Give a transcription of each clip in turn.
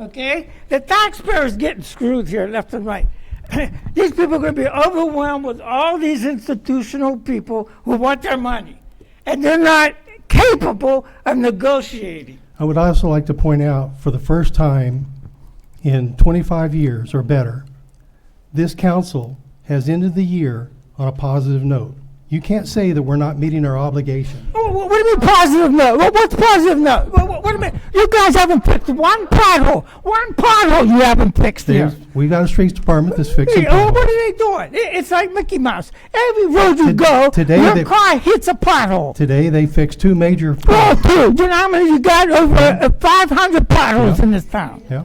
okay? The taxpayer's getting screwed here left and right. these people are going to be overwhelmed with all these institutional people who want their money, and they're not capable of negotiating. I would also like to point out, for the first time in 25 years or better, this council has ended the year on a positive note. You can't say that we're not meeting our obligation. Wha- wha- What do you mean positive note? Wha- What's positive note? Wha- wha- What do you mean? You guys haven't fixed one pothole. One pothole you haven't fixed there. There's, we've got a streets department that's fixing Hey, oh, what potholes. are they doing? I- It's like Mickey Mouse. Every road you go, today your they- car hits a pothole. Today, they fixed two major. Oh, dude, you know how many you got? Over uh, 500 potholes in this town. Yeah.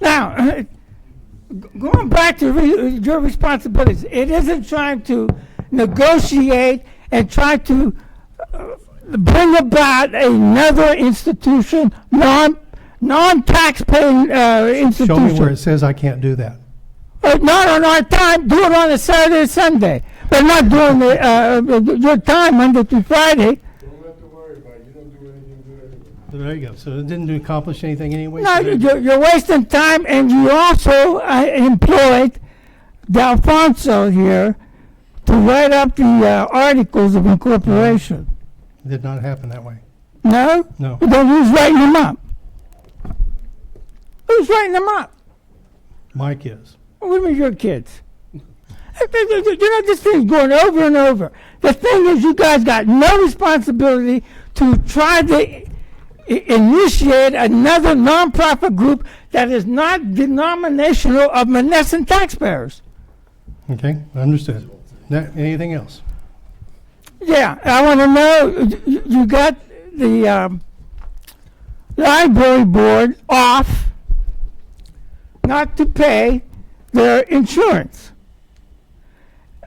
Now, uh, g- going back to re- your responsibilities, it isn't trying to negotiate and try to uh, bring about another institution, non, non-taxpaying uh, Show me where it institution. says I can't do that. Uh, Not on our time, do it on a Saturday, or Sunday, but not during the, uh, uh, your time, Monday through Friday. Don't have to worry about it, you don't do anything good anyway. There you go. So it didn't accomplish anything anyway. No, so there you go. you're, you're wasting time, and you also uh, employed D'Alfonso here to write up the uh, articles of incorporation. It Did not happen that way. No? No. Then who's writing them up? Who's writing them up? Mike is. What do you mean your kids? You know, this thing's going over and over. The thing is, you guys got no responsibility to try to i- initiate another nonprofit group that is not denominational of Menneson taxpayers. Okay, understood. Now, anything else? Yeah, I want to know, you- you got the um, library board off not to pay their insurance.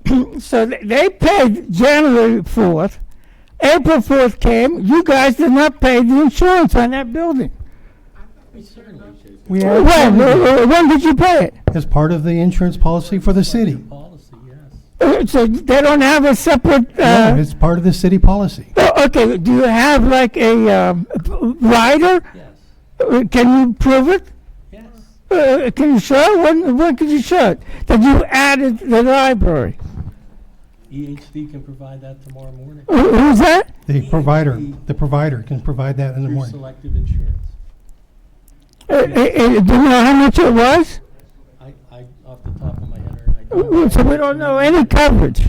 So th- they paid January 4th. April 4th came, you guys did not pay the insurance on that building. We When, uh, when did you pay it? As part of the insurance policy for the city. Policy, yes. Uh, So they don't have a separate, No, uh, it's part of the city policy. oh, okay, do you have like a um, rider? Yes, Uh, Can you prove it? yes. Uh, can you show? When, when could you show it? That you added the library. EHD E can provide that tomorrow morning. Who, who's that? The provider, the provider can provide that in the Through morning. selective insurance. Uh, uh, uh, do you know how much it was? I, I, off the top of my head, Ernie, I Uh, don't. So we don't know any coverage.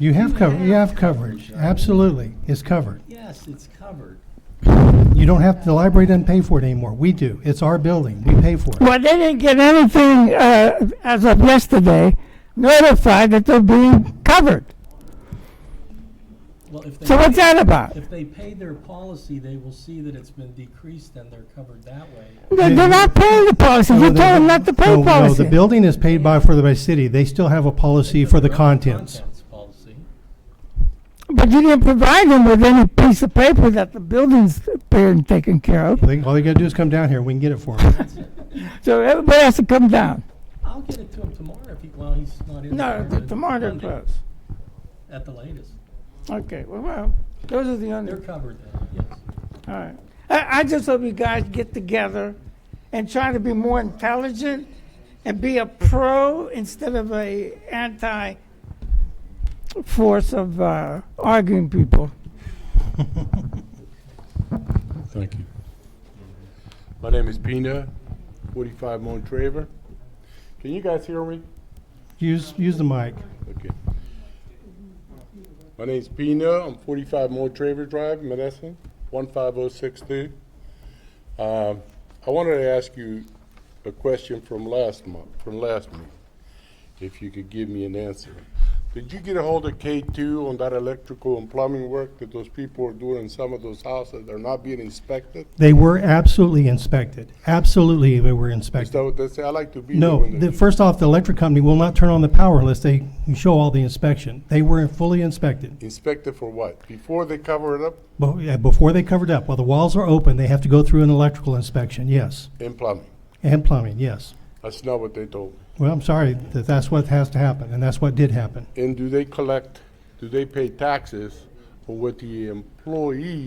You have cover, you have coverage, absolutely, it's covered. Yes, it's covered. You don't have, the library doesn't pay for it anymore, we do, it's our building, we pay for it. Well, they didn't get anything uh, as of yesterday notified that they're being covered. Well, if they. So what's that about? If they pay their policy, they will see that it's been decreased and they're covered that way. They- They're not paying the policy. You told them not to pay No, No, the policy. building is paid by, for the, by city, they still have a policy for the contents. Contents policy. But you didn't provide them with any piece of paper that the building's being taken care of. They- All they gotta do is come down here, we can get it for them. So everybody has to come down. I'll get it to him tomorrow if he, well, he's not in. No, but tomorrow they're Monday, closed. At the latest. Okay, well, well, those are the They're under, covered then, yes. all right. I, I just hope you guys get together and try to be more intelligent and be a pro instead of a anti force of uh, arguing people. Thank you. My name is Pina, 45 Montraver. Can you guys hear me? Use, use the mic. Okay. My name's Pina, I'm 45 Montraver Drive, Menneson, 15062. Um, I wanted to ask you a question from last month, from last meeting, if you could give me an answer. Did you get a hold of K2 on that electrical and plumbing work that those people are doing in some of those houses? They're not being inspected? They were absolutely inspected, absolutely they were Is that inspected. what they say? I like to be. there No, when the, they- first off, the electric company will not turn on the power unless they show all the inspection. They were fully inspected. Inspect it for what? Before they cover it up Well, yeah, Before they covered up, while the walls are open, they have to go through an electrical inspection, yes. in plumbing? And plumbing, yes. That's not what they told me. Well, I'm sorry that that's what has to happen, and that's what did happen. And do they collect, do they pay taxes on what the employee